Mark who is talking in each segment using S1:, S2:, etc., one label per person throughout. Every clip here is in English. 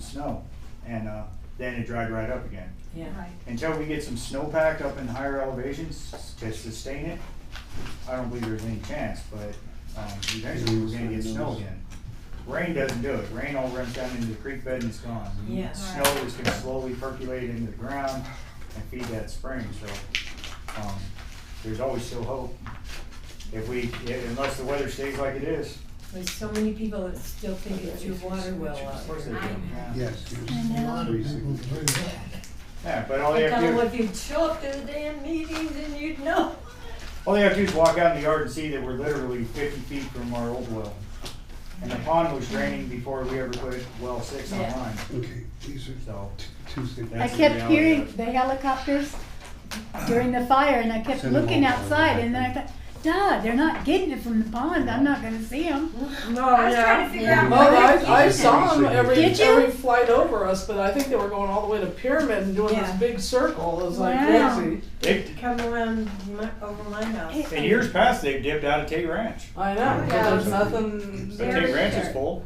S1: snow, and uh, then it dried right up again.
S2: Yeah,
S3: Right,
S1: Until we get some snowpack up in higher elevations to sustain it, I don't believe there's any chance, but um, eventually we're gonna get snow again. Rain doesn't do it, rain all runs down into the creek bed and it's gone.
S2: Yeah.
S1: Snow is gonna slowly percolate into the ground and feed that spring, so, um, there's always still hope. If we, unless the weather stays like it is.
S2: there's so many people that still think it's your water well
S1: Of
S2: out
S1: course they
S2: there.
S1: do, yeah.
S4: Yes, there's
S3: I know.
S4: lotteries.
S1: Oh, Yeah, but all they
S2: I
S1: have
S2: tell
S1: to do.
S2: them if you'd show up to the damn meetings and you'd know.
S1: All they have to do is walk out in the yard and see that we're literally fifty feet from our old well. And the pond was draining before we ever put well six
S2: Yeah.
S1: online,
S4: Okay, these are
S1: so.
S4: t- Tuesday.
S5: I
S1: that's the
S5: kept
S1: reality
S5: hearing
S1: of it.
S5: the helicopters during the fire, and I kept
S4: Send them
S5: looking
S4: all over.
S5: outside, and then I thought, duh, they're not getting it from the pond, I'm not gonna see them.
S6: No,
S3: I was trying to
S6: yeah.
S3: figure out.
S6: Oh,
S3: where
S6: I,
S3: they
S6: I
S3: came
S6: saw
S4: Did
S6: them every,
S5: you?
S6: every flight over us, but I think they were going all the way to Pyramid and doing
S2: Yeah.
S6: this big circle. It was like
S5: Wow.
S6: crazy.
S1: They,
S2: Come around my, over my house.
S1: in years past, they've dipped out of Tate Ranch,
S6: I know,
S3: Yeah.
S6: 'cause there's nothing.
S1: but
S3: They're
S1: Tate Ranch is
S3: there.
S1: full,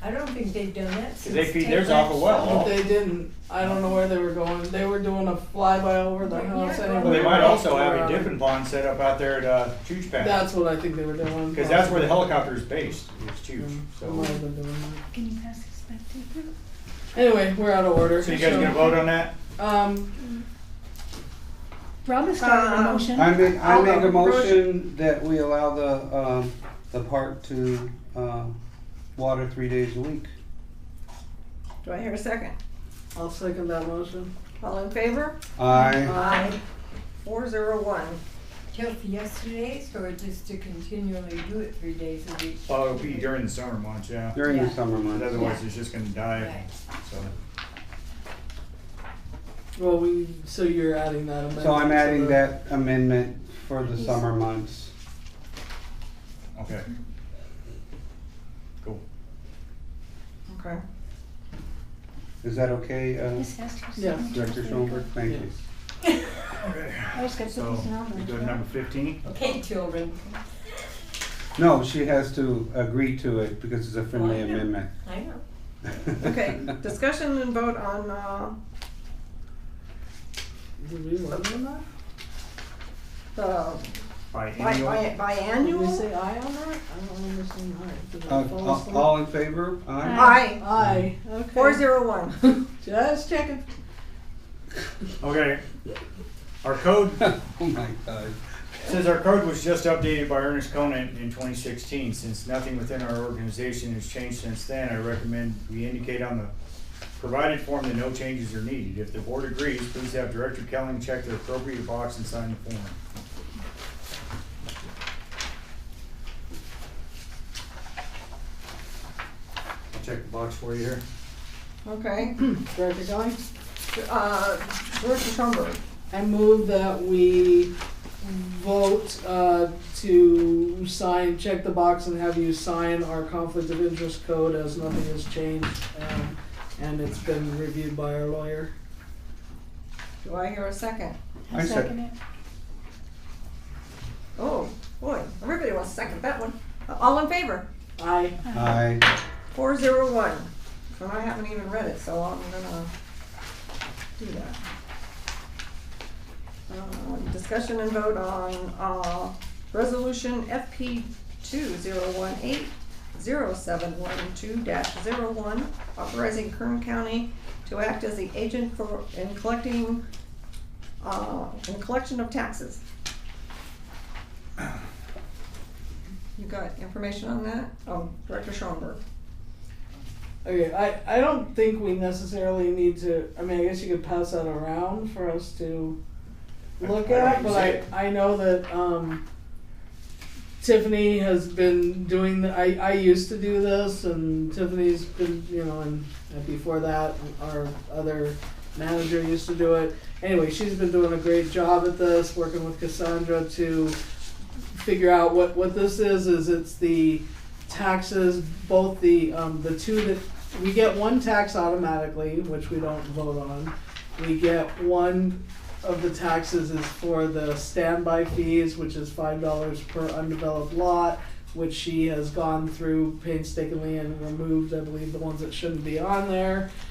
S2: I don't think they've done that
S1: cause
S2: since.
S1: they feed
S2: Ted
S1: theirs off a
S2: Lasso.
S6: But
S1: well.
S6: they didn't. I don't know where they were going. They were doing a flyby over the
S3: Yeah.
S6: house.
S3: Well,
S1: Well, they might also have a
S6: Around.
S1: dipping pond set up out there at, uh, Chooch Pad,
S6: That's what I think they were doing.
S1: cause that's where the helicopter is based, is Chooch,
S6: They
S1: so.
S6: might have been doing that.
S5: Can you pass this back to her?
S6: Anyway, we're out of order.
S1: So you guys gonna vote on that?
S6: Um,
S5: Robin started a
S2: Uh,
S5: motion.
S4: I make, I
S6: I'll
S4: make
S6: go.
S4: a motion that we allow the, um, the park to, um, water three days a week.
S2: Do I hear a second?
S6: I'll second that motion.
S2: All in favor?
S4: I,
S2: Aye. Four zero one. Till for yesterday's or just to continually do it three days a week?
S1: Oh, it'll be during the summer months, yeah,
S4: during the
S5: Yeah.
S4: summer
S1: But
S4: months.
S1: otherwise it's just gonna die,
S2: Right.
S1: so.
S6: Well, we. So you're adding that amendment.
S4: So I'm
S6: to
S4: adding
S6: the-
S4: that amendment for the summer months.
S1: Okay. Cool.
S2: Okay.
S4: Is that okay, uh,
S5: This has to be
S6: Yeah.
S5: signed.
S4: Director Schoenberg? Thank you.
S5: I just gotta put
S1: So,
S5: this number.
S1: we go to number fifteen?
S2: Okay, children,
S4: No, she has to agree to it because it's a friendly
S2: Well, I know.
S4: amendment.
S2: I know.
S7: Okay, discussion and vote on, uh,
S6: Did we vote on that?
S7: the
S1: By
S7: bi-
S1: annual?
S7: bi- biannual?
S6: Did we say aye on that? I don't understand aye. Did I
S4: Uh,
S6: fall
S4: all-
S6: asleep?
S4: all in favor? Aye.
S7: Aye,
S6: Aye, okay.
S7: four zero one.
S6: Just checking.
S1: Okay. Our code,
S4: Oh my God.
S1: says our code was just updated by Ernest Conan in twenty sixteen. Since nothing within our organization has changed since then, I recommend we indicate on the provided form that no changes are needed. If the board agrees, please have Director Kelling check the appropriate box and sign the form. I'll check the box for you here.
S7: Okay,
S6: Director going?
S7: uh, Director Schoenberg,
S6: I move that we vote uh, to sign, check the box and have you sign our conflict of interest code as nothing has changed. um, And it's been reviewed by our lawyer.
S7: do I hear a second?
S4: I
S5: I
S4: said-
S5: second it.
S7: Oh, boy, everybody wants to second that one. All in favor?
S6: Aye.
S4: Aye.
S7: Four zero one. And I haven't even read it, so I'm gonna do that. Um, Discussion and vote on, uh, resolution FP two zero one eight zero seven one two dash zero one, authorizing Kern County to act as the agent for, in collecting, uh, in collection of taxes. You got information on that? Oh, Director Schoenberg.
S6: Okay, I, I don't think we necessarily need to, I mean, I guess you could pass that around for us to look
S1: I- I
S6: at,
S1: didn't
S6: but
S1: see
S6: I,
S1: it.
S6: I know that, um, Tiffany has been doing, the- I, I used to do this and Tiffany's been, you know, and and before that, our other manager used to do it. Anyway, she's been doing a great job at this, working with Cassandra to figure out what, what this is, is it's the taxes, both the, um, the two that, we get one tax automatically, which we don't vote on. We get one of the taxes is for the standby fees, which is five dollars per undeveloped lot. which she has gone through painstakingly and removed, I believe, the ones that shouldn't be on there.